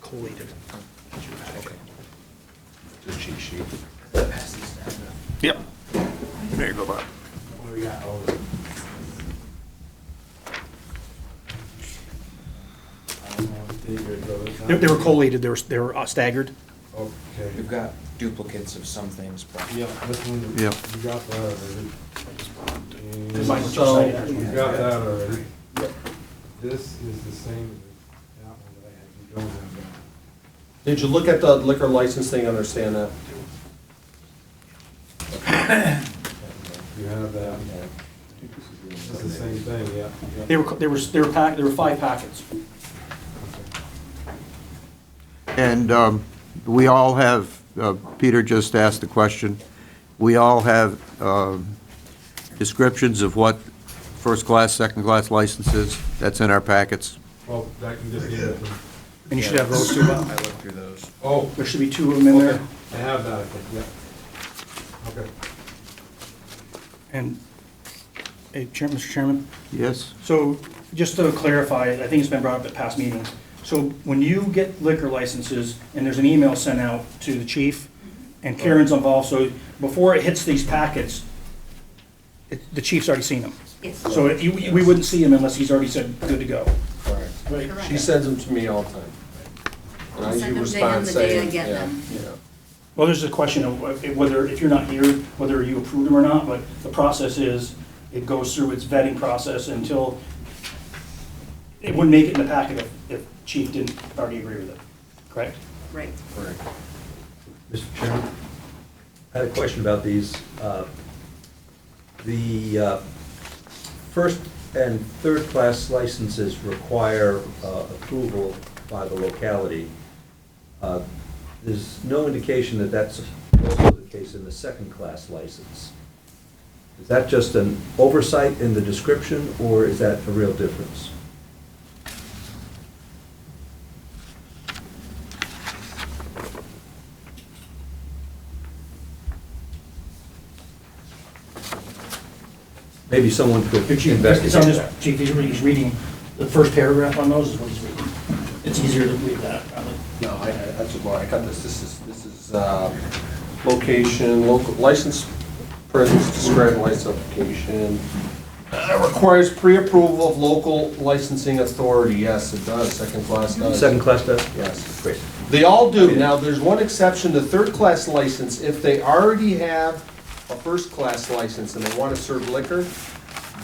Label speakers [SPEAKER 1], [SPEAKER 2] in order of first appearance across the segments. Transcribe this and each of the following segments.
[SPEAKER 1] Coley to.
[SPEAKER 2] Just cheat sheet.
[SPEAKER 3] Yep. There you go, Bob.
[SPEAKER 2] What do we got? Oh, the- I don't know if they did go this
[SPEAKER 1] They they were
[SPEAKER 2] time.
[SPEAKER 1] collated, they were, they were uh, staggered.
[SPEAKER 4] We've
[SPEAKER 2] Okay.
[SPEAKER 4] got duplicates of some things, but
[SPEAKER 2] Yep, this one, you
[SPEAKER 3] Yep.
[SPEAKER 2] got that already.
[SPEAKER 1] This
[SPEAKER 2] And-
[SPEAKER 1] is so-
[SPEAKER 2] You got that already. This is the same as that one that I had. You don't have that.
[SPEAKER 5] Did you look at the liquor license thing, understand that?
[SPEAKER 2] You have that. It's the same thing, yeah. yeah.
[SPEAKER 1] They were, co- they were, they were pack, there were five packets.
[SPEAKER 2] Okay.
[SPEAKER 6] And um, we all have, uh, Peter just asked the question, we all have um, descriptions of what first-class, second-class license is. That's in our packets.
[SPEAKER 2] Well, Oh, that can just get it. from-
[SPEAKER 1] And you should have those two, Bob.
[SPEAKER 4] I looked through those.
[SPEAKER 2] Oh,
[SPEAKER 1] There should be two of them in
[SPEAKER 2] okay.
[SPEAKER 1] there.
[SPEAKER 2] I have that, I think, yeah. Okay.
[SPEAKER 1] And, hey, Chair- Mr. Chairman,
[SPEAKER 6] Yes?
[SPEAKER 1] so just to clarify, I think it's been brought up at past meetings. So when you get liquor licenses, and there's an email sent out to the chief, and Karen's involved, so before it hits these packets, it- the chief's already seen them.
[SPEAKER 7] Yes.
[SPEAKER 1] So if you- we wouldn't see him unless he's already said, good to go.
[SPEAKER 5] Correct.
[SPEAKER 7] Correct.
[SPEAKER 5] She sends them to me all the time. And I
[SPEAKER 7] I'll send
[SPEAKER 5] usually
[SPEAKER 7] them day on
[SPEAKER 5] respond
[SPEAKER 7] the day I
[SPEAKER 5] saying,
[SPEAKER 7] get
[SPEAKER 5] yeah,
[SPEAKER 7] them.
[SPEAKER 5] yeah.
[SPEAKER 1] Well, there's a question of whether, if you're not here, whether you approve them or not, but the process is, it goes through its vetting process until, it wouldn't make it in the packet if, if chief didn't already agree with it, correct?
[SPEAKER 7] Right.
[SPEAKER 5] Correct.
[SPEAKER 8] Mr. Chairman, I had a question about these. Uh, The uh, first and third-class licenses require uh, approval by the locality. Uh, There's no indication that that's also the case in the second-class license. Is that just an oversight in the description, or is that a real difference? Maybe someone could investigate
[SPEAKER 1] It's on
[SPEAKER 8] that.
[SPEAKER 1] this, chief, he's reading, he's reading the first paragraph on those is what he's reading. It's easier to believe that, probably.
[SPEAKER 5] No, I, I- that's a bar, I got this, this is, this is, uh, location, local, license, presence, described license application. Uh, Requires pre-approval of local licensing authority, yes, it does, second class does.
[SPEAKER 8] Second class does?
[SPEAKER 5] Yes.
[SPEAKER 8] Great.
[SPEAKER 5] They all do. Now, there's one exception to third-class license. If they already have a first-class license and they want to serve liquor,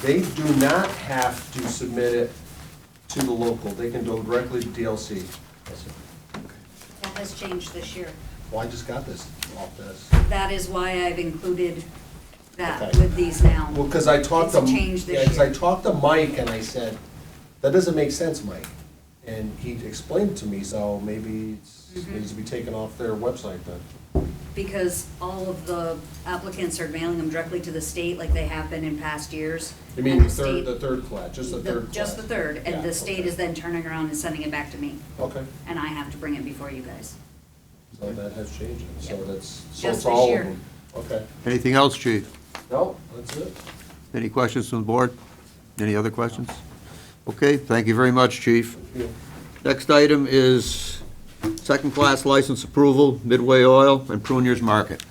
[SPEAKER 5] they do not have to submit it to the local. They can go directly to DLC.
[SPEAKER 7] That has changed this year.
[SPEAKER 5] Well, I just got this off this.
[SPEAKER 7] That is why I've included that
[SPEAKER 5] Okay.
[SPEAKER 7] with these now.
[SPEAKER 5] Well, because I talked to.
[SPEAKER 7] It's a change this
[SPEAKER 5] yeah, 'cause I
[SPEAKER 7] year.
[SPEAKER 5] talked to Mike and I said, that doesn't make sense, Mike. And he explained to me, so maybe it
[SPEAKER 7] Mm-hmm.
[SPEAKER 5] needs to be taken off their website then.
[SPEAKER 7] Because all of the applicants are mailing them directly to the state like they have been in past years.
[SPEAKER 5] You mean
[SPEAKER 7] and
[SPEAKER 5] the third,
[SPEAKER 7] state-
[SPEAKER 5] the third class, just the
[SPEAKER 7] the-
[SPEAKER 5] third class?
[SPEAKER 7] Just the third,
[SPEAKER 5] Yeah,
[SPEAKER 7] and the state
[SPEAKER 5] okay.
[SPEAKER 7] is then turning around and sending it back to me,
[SPEAKER 5] Okay,
[SPEAKER 7] and I have to bring it before you guys.
[SPEAKER 5] so that has changed, it. so
[SPEAKER 7] Yep.
[SPEAKER 5] that's, so
[SPEAKER 7] Just
[SPEAKER 5] it's all
[SPEAKER 7] this
[SPEAKER 5] of
[SPEAKER 7] year.
[SPEAKER 5] them. Okay,
[SPEAKER 6] Anything else, chief?
[SPEAKER 5] no, that's it.
[SPEAKER 6] Any questions from the board? Any other questions? Okay, thank you very much, chief. Next item is second-class license approval, Midway Oil and Prunier's Market.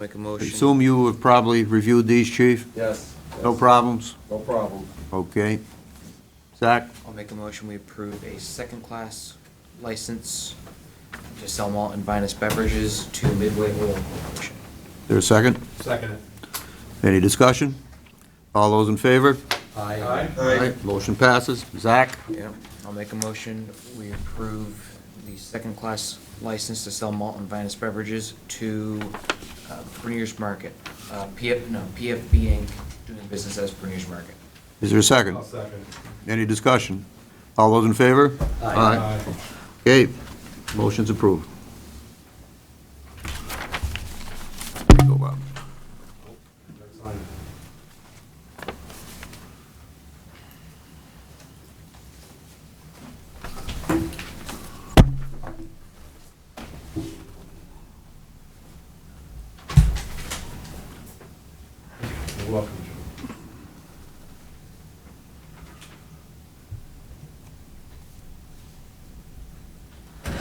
[SPEAKER 4] Make a
[SPEAKER 6] I
[SPEAKER 4] motion.
[SPEAKER 6] Assume you have probably reviewed these, chief?
[SPEAKER 5] Yes.
[SPEAKER 6] No
[SPEAKER 5] yes,
[SPEAKER 6] problems?
[SPEAKER 5] No problem.
[SPEAKER 6] Okay. Zach?
[SPEAKER 4] I'll make a motion, we approve a second-class license to sell malt and vinous beverages to Midway Oil Corporation.
[SPEAKER 6] There a second?
[SPEAKER 2] Second it.
[SPEAKER 6] Any discussion? All those in favor?
[SPEAKER 2] Aye.
[SPEAKER 6] Motion passes. Zach?
[SPEAKER 4] Yeah, I'll make a motion, we approve the second-class license to sell malt and vinous beverages to uh, Premier's Market, uh, PF, no, PFB Inc., doing business as Premier's Market.
[SPEAKER 6] Is there a second?
[SPEAKER 2] I'll second it.
[SPEAKER 6] Any discussion? All those in favor?
[SPEAKER 2] Aye.
[SPEAKER 6] Okay, motion's approved. Go, Bob.
[SPEAKER 2] That's fine. You're welcome.